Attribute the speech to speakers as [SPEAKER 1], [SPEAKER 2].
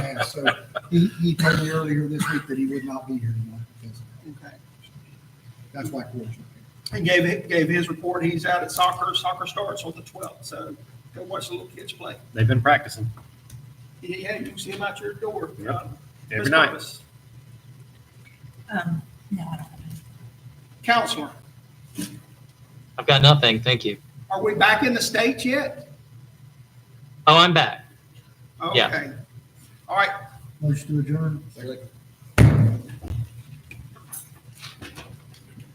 [SPEAKER 1] So he, he told me earlier this week that he would not be here tonight because of that.
[SPEAKER 2] Okay.
[SPEAKER 1] That's why Corey's not here.
[SPEAKER 2] And gave, gave his report. He's out at soccer. Soccer starts on the twelfth, so go watch the little kids play.
[SPEAKER 3] They've been practicing
[SPEAKER 2] Yeah, you can see him out your door.
[SPEAKER 3] Yep.
[SPEAKER 2] Uh, Ms.
[SPEAKER 3] every night.
[SPEAKER 2] Thomas,
[SPEAKER 4] Um, no, I don't have any.
[SPEAKER 2] Counselor,
[SPEAKER 5] I've got nothing. Thank you.
[SPEAKER 2] are we back in the States yet?
[SPEAKER 5] Oh, I'm back. Yeah.
[SPEAKER 2] Okay. All right,
[SPEAKER 1] Motion to adjourn.